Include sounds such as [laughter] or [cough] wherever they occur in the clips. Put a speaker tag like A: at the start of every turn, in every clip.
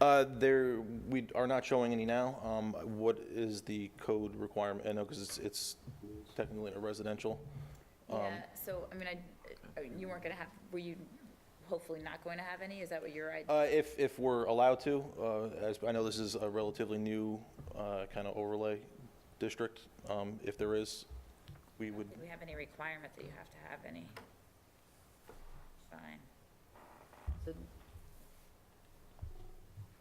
A: Uh, There, we are not showing any now. Um, What is the code requirement? I know, because it's, it's technically a residential. Um,
B: Yeah, so, I mean, I, you weren't gonna have, were you hopefully not going to have any? Is that what your idea?
A: Uh, If, if we're allowed to, uh, as, I know this is a relatively new kind of overlay district. Um, If there is, we would,
B: Do we have any requirement that you have to have any? Fine.
C: So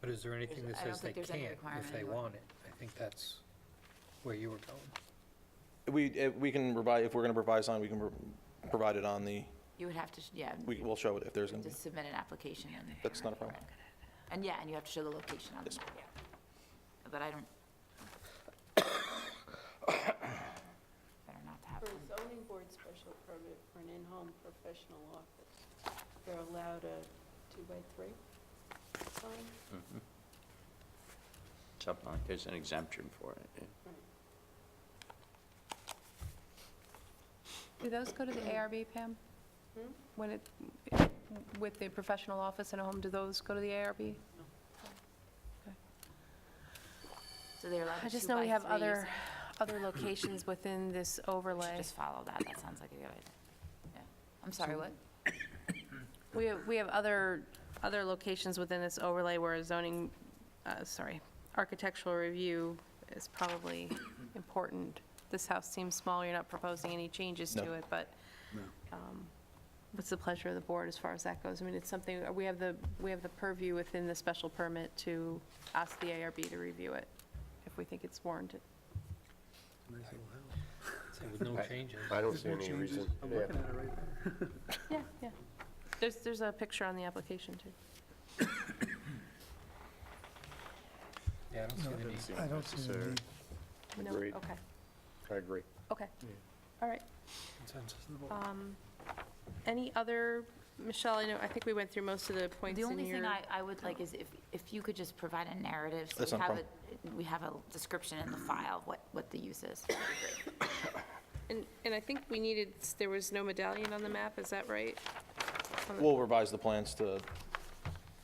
D: But is there anything that
C: I don't
D: says they
C: think there's any
D: can't if
C: requirement
D: they
C: anywhere.
D: want it? I think that's where you were going.
A: we, eh, we can provide, if we're going to provide something, we can pro- provide it on the,
C: You would have to, sh- yeah,
A: we will show it if there's going to be.
C: just submit an application and.
A: That's not a problem.
C: And yeah, and you have to show the location on the
A: Yes.
C: map, yeah. But I don't. [coughs] Better not to have
E: For
C: them.
E: a zoning board special permit for an in-home professional office, they're allowed a two-by-three sign?
F: Something like, there's an exemption for it. yeah.
G: Do those go to the ARB, Pam?
E: Hmm?
G: When it, with the professional office and a home, do those go to the ARB?
C: So they're allowed
G: I
C: to
G: just
C: two
G: know we
C: by
G: have
C: three, you
G: other,
C: said.
G: other locations within this overlay.
C: Just follow that, that sounds like a good idea. Yeah. I'm sorry, what?
G: We, have- we have other, other locations within this overlay where zoning, uh, sorry, architectural review is probably important. This house seems small, you're not proposing any changes
A: No.
G: to it, but um, what's the pleasure of the board as far as that goes? I mean, it's something, we have the, we have the purview within the special permit to ask the ARB to review it if we think it's warranted.
D: So With no changes.
H: I don't see any reason. yeah.
G: Yeah, yeah. There's, there's a picture on the application, too.
D: Yeah, I don't see the need.
I: I don't see the
H: necessary.
I: need.
G: No,
H: Agreed.
G: Okay,
H: I agree.
G: okay. All right.
D: Consensus.
G: Um, Any other, Michelle, I know, I think we went through most of the points
C: The
G: in
C: only thing
G: your-
C: I, I would like is if, if you could just provide a narrative. so
A: That's
C: we
A: not a
C: have a- We have a description in the file, of what, what the use is.
G: And, and I think we needed, there was no medallion on the map, is that right? On the-
A: We'll revise the plans to,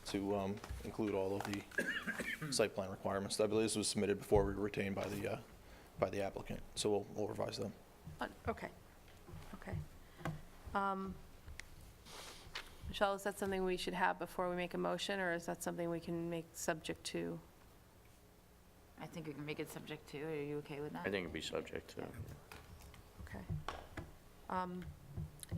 A: to um, include all of the site plan requirements. I believe this was submitted before we were retained by the, uh, by the applicant, so we'll, we'll revise them.
G: on- Okay, okay. Um, Michelle, is that something we should have before we make a motion, or is that something we can make subject to?
C: I think we can make it subject to, are you okay with that?
F: I think it'd be subject to.
G: Okay. Um,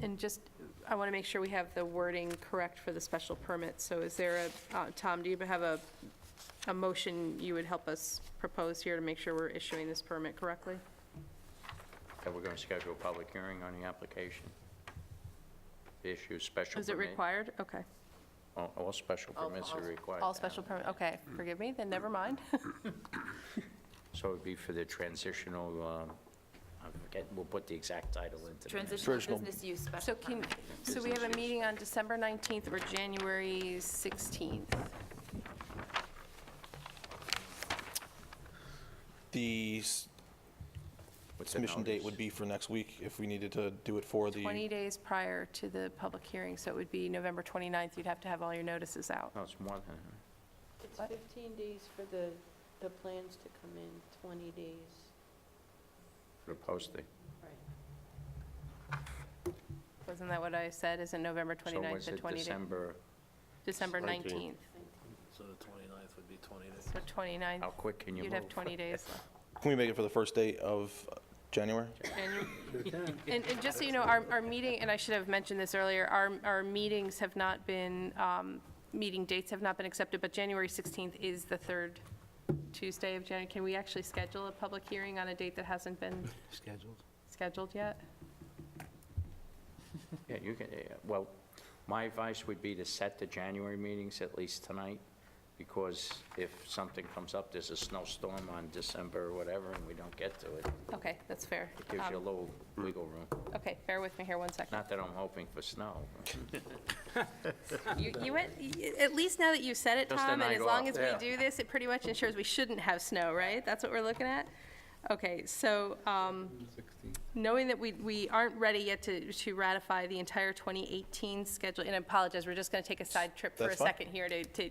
G: And just, I want to make sure we have the wording correct for the special permit. So is there a, uh, Tom, do you have a, a motion you would help us propose here to make sure we're issuing this permit correctly?
F: And we're going to schedule a public hearing on the application. Issue special permit.
G: Is it required? Okay.
F: All all special
C: All-
F: permits
C: all-
F: are required.
G: All
F: to
G: special
F: have-
G: permit, okay, forgive me, then never mind. [laughs]
F: So it'd be for the transitional, um, I forget, we'll put the exact title into the minutes.
A: Traditional-
C: Transitional business use
G: So
C: special
G: can,
C: permit.
G: so we have a meeting on December 19th or January 16th?
A: The s-
F: What's the
A: submission date
F: notice?
A: would be for next week if we needed to do it for the.
G: 20 days prior to the public hearing, so it would be November 29th. You'd have to have all your notices out.
F: No, it's more than, that.
E: It's
G: What?
E: 15 days for the, the plans to come in, 20 days.
F: for the posting.
E: Right.
G: Wasn't that what I said? Isn't November 29th to
F: So was it
G: 20 days?
F: December,
G: December
H: 19th.
G: 19th.
J: So the 29th would be 20 days.
G: So 29th,
F: how quick can you move?
G: you'd have
F: [laughs]
G: 20 days left.
A: Can we make it for the first day of uh, January?
G: And- And, and just so you know, our, our meeting, and I should have mentioned this earlier, our, our meetings have not been, um, meeting dates have not been accepted, but January 16th is the third Tuesday of January. Can we actually schedule a public hearing on a date that hasn't been
J: Scheduled.
G: scheduled yet?
F: Yeah, you can, yeah, well, my advice would be to set the January meetings at least tonight, because if something comes up, there's a snowstorm on December or whatever, and we don't get to it,
G: Okay, that's fair.
F: it gives you a
G: Um,
F: little wiggle room.
G: Okay, bear with me here one second.
F: Not that I'm hoping for snow. but-
G: You, you went, y- at least now that you said it,
F: Just a
G: Tom, and
F: night
G: as long
F: off,
G: as we
F: yeah.
G: do this, it pretty much ensures we shouldn't have snow, right? That's what we're looking at? Okay, so, um, knowing that we, we aren't ready yet to, to ratify the entire 2018 schedule, and I apologize, we're just gonna take a side trip for a
A: That's fine.
G: second here to, to